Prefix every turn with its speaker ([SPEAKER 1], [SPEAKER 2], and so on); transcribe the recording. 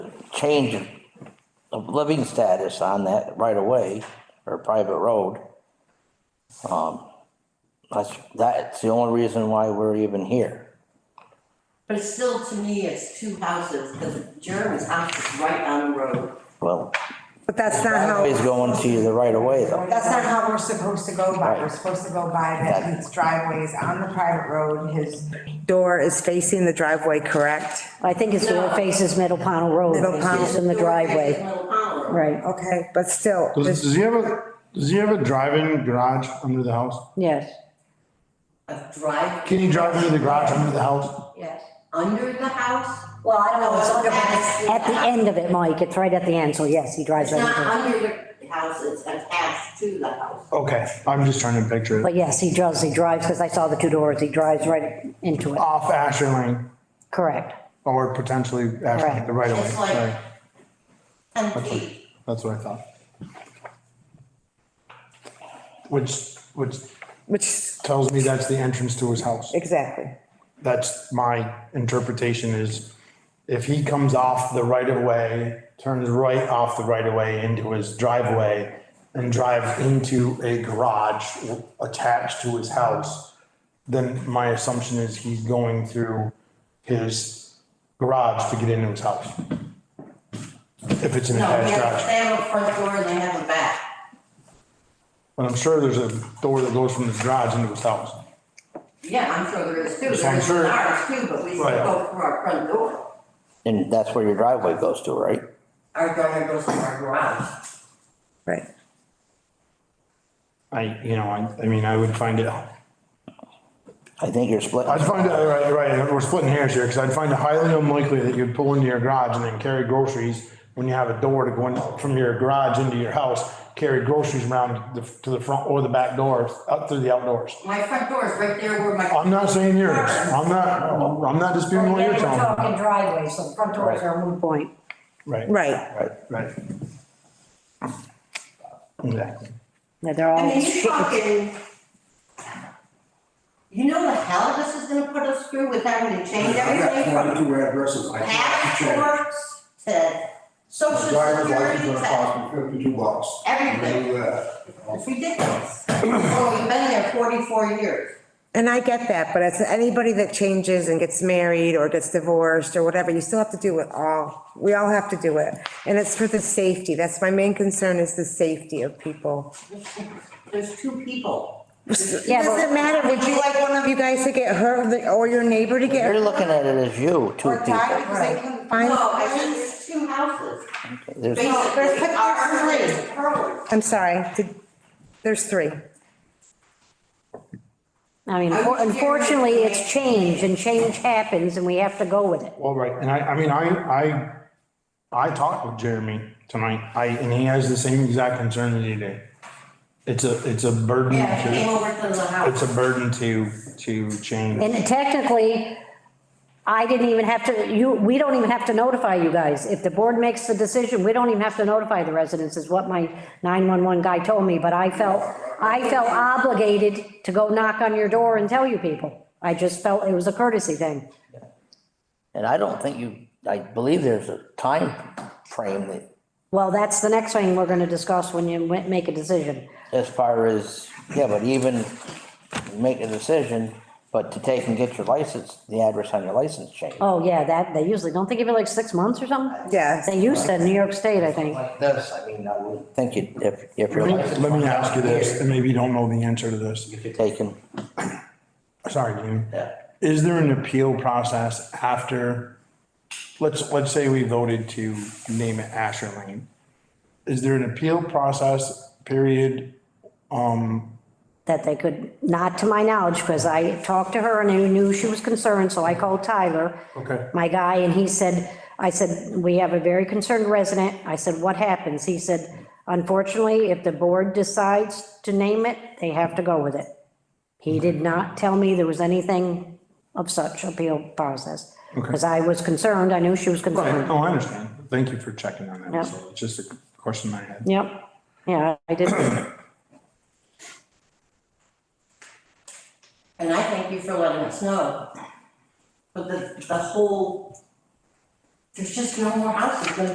[SPEAKER 1] change of living status on that right of way or private road. Um, that's, that's the only reason why we're even here.
[SPEAKER 2] But it's still, to me, it's two houses, because Jeremy's house is right on the road.
[SPEAKER 1] Well,
[SPEAKER 3] But that's not
[SPEAKER 1] always
[SPEAKER 3] how,
[SPEAKER 1] going to the right of way though.
[SPEAKER 3] that's not how we're supposed to go by. We're
[SPEAKER 1] Right.
[SPEAKER 3] supposed to go by that
[SPEAKER 1] Exactly.
[SPEAKER 3] his driveway is on the private road, his door is facing the driveway, correct?
[SPEAKER 4] I think it's the one faces Middle Pownell Road,
[SPEAKER 3] Middle Pownell.
[SPEAKER 4] it's in the driveway,
[SPEAKER 2] Little Pownell Road.
[SPEAKER 4] right,
[SPEAKER 3] Okay, but still,
[SPEAKER 5] Does,
[SPEAKER 3] this-
[SPEAKER 5] does he have a, does he have a drive-in garage under the house?
[SPEAKER 4] yes,
[SPEAKER 2] A drive.
[SPEAKER 5] Can you drive into the garage under the house?
[SPEAKER 2] Yes, under the house?
[SPEAKER 4] Well, I don't know, it's
[SPEAKER 2] No,
[SPEAKER 4] at
[SPEAKER 2] it's past
[SPEAKER 4] the- at the end of it, Mike, it's right at the end, so yes, he drives
[SPEAKER 2] It's
[SPEAKER 4] right
[SPEAKER 2] not
[SPEAKER 4] into it.
[SPEAKER 2] under the house, it's attached to the house.
[SPEAKER 5] Okay, I'm just trying to picture it.
[SPEAKER 4] But yes, he does, he drives, because I saw the two doors, he drives right into it,
[SPEAKER 5] Off Asher Lane
[SPEAKER 4] correct.
[SPEAKER 5] or potentially Asher, Lane, the right of way,
[SPEAKER 2] It's like-
[SPEAKER 5] sorry.
[SPEAKER 2] Ten feet.
[SPEAKER 5] That's what I thought. Which, which
[SPEAKER 3] which,
[SPEAKER 5] tells me that's the entrance to his house.
[SPEAKER 3] exactly.
[SPEAKER 5] That's my interpretation is if he comes off the right of way, turns right off the right of way into his driveway and drives into a garage attached to his house, then my assumption is he's going through his garage to get into his house. If it's an
[SPEAKER 2] No, they have,
[SPEAKER 5] attached garage.
[SPEAKER 2] they have a front door and they have a back.
[SPEAKER 5] But I'm sure there's a door that goes from his garage into his house.
[SPEAKER 2] Yeah, I'm sure there is too.
[SPEAKER 5] So I'm
[SPEAKER 2] There's
[SPEAKER 5] sure-
[SPEAKER 2] ours too, but we still
[SPEAKER 5] Right.
[SPEAKER 2] go through our front door.
[SPEAKER 1] And that's where your driveway goes to, right?
[SPEAKER 2] Our door goes to our garage.
[SPEAKER 3] Right.
[SPEAKER 5] I, you know, I, I mean, I would find it,
[SPEAKER 1] I think you're split.
[SPEAKER 5] I'd find it, right, right, we're splitting hairs here, because I'd find it highly unlikely that you'd pull into your garage and then carry groceries when you have a door to go in from your garage into your house, carry groceries around the, to the front or the back door, out through the outdoors.
[SPEAKER 2] My front door is right there where my.
[SPEAKER 5] I'm not saying yours, I'm not, I'm not disputing what you're telling me.
[SPEAKER 4] talking driveway, so the front doors are a moot point.
[SPEAKER 5] Right.
[SPEAKER 3] Right.
[SPEAKER 5] Right, right. Exactly.
[SPEAKER 4] Yeah, they're all.
[SPEAKER 2] I
[SPEAKER 6] Oh,
[SPEAKER 2] mean, you're talking. You know the hell this is gonna put us through with having to change
[SPEAKER 6] I
[SPEAKER 2] everything
[SPEAKER 6] got
[SPEAKER 2] from
[SPEAKER 6] twenty-two addresses I have to change.
[SPEAKER 2] passports to social
[SPEAKER 6] My driver's license
[SPEAKER 2] security
[SPEAKER 6] gonna
[SPEAKER 2] to.
[SPEAKER 6] cost me fifty-two bucks.
[SPEAKER 2] Everything.
[SPEAKER 6] Do that.
[SPEAKER 2] It's ridiculous. Oh, we've been there forty-four years.
[SPEAKER 3] And I get that, but as anybody that changes and gets married or gets divorced or whatever, you still have to do it all. We all have to do it. And it's for the safety. That's my main concern is the safety of people.
[SPEAKER 2] There's two people.
[SPEAKER 4] Yeah,
[SPEAKER 3] It
[SPEAKER 4] but-
[SPEAKER 3] doesn't matter. Would you like one of you guys to get hurt or the- or your neighbor to get
[SPEAKER 1] You're
[SPEAKER 3] hurt?
[SPEAKER 1] looking at it as you, two
[SPEAKER 3] Or die
[SPEAKER 1] people.
[SPEAKER 3] because they couldn't find.
[SPEAKER 2] No, I think there's two houses.
[SPEAKER 1] There's,
[SPEAKER 2] Basically, our three, hers.
[SPEAKER 3] I'm sorry, did- there's three.
[SPEAKER 4] I mean,
[SPEAKER 2] I'm scared.
[SPEAKER 4] unfortunately, it's change, and change happens, and we have to go with it.
[SPEAKER 5] Well, right, and I, I mean, I, I, I talked with Jeremy tonight, I, and he has the same exact concern that you do. It's a, it's a burden
[SPEAKER 2] Yeah, they came
[SPEAKER 5] to,
[SPEAKER 2] over to the house.
[SPEAKER 5] it's a burden to, to change.
[SPEAKER 4] And technically, I didn't even have to, you, we don't even have to notify you guys. If the board makes the decision, we don't even have to notify the residents, is what my 911 guy told me, but I felt, I felt obligated to go knock on your door and tell you people. I just felt it was a courtesy thing.
[SPEAKER 1] and I don't think you, I believe there's a time frame that,
[SPEAKER 4] Well, that's the next thing we're gonna discuss when you wa- make a decision.
[SPEAKER 1] as far as, yeah, but even make a decision, but to take and get your license, the address on your license changed.
[SPEAKER 4] Oh, yeah, that, they usually, don't they give you like six months or something?
[SPEAKER 3] Yeah.
[SPEAKER 4] They used to in New York State, I think.
[SPEAKER 1] Like this, I mean, I would think you, if, if your license.
[SPEAKER 5] Let me ask you this, and maybe you don't know the answer to this,
[SPEAKER 1] If you're taking,
[SPEAKER 5] sorry, Jamie.
[SPEAKER 1] yeah,
[SPEAKER 5] Is there an appeal process after, let's, let's say we voted to name it Asher Lane? Is there an appeal process period
[SPEAKER 4] that they could, not to my knowledge, because I talked to her and I knew she was concerned, so I called Tyler.
[SPEAKER 5] Okay.
[SPEAKER 4] My guy, and he said, I said, we have a very concerned resident. I said, what happens? He said, unfortunately, if the board decides to name it, they have to go with it. He did not tell me there was anything of such appeal process. Because I was concerned, I knew she was
[SPEAKER 5] Right,
[SPEAKER 4] concerned.
[SPEAKER 5] oh, I understand. Thank you for checking on that.
[SPEAKER 4] Yeah.
[SPEAKER 5] So It's just a question I had.
[SPEAKER 4] Yep, yeah, I did.
[SPEAKER 2] And I thank you for letting us know. But the, the whole, there's just no more houses gonna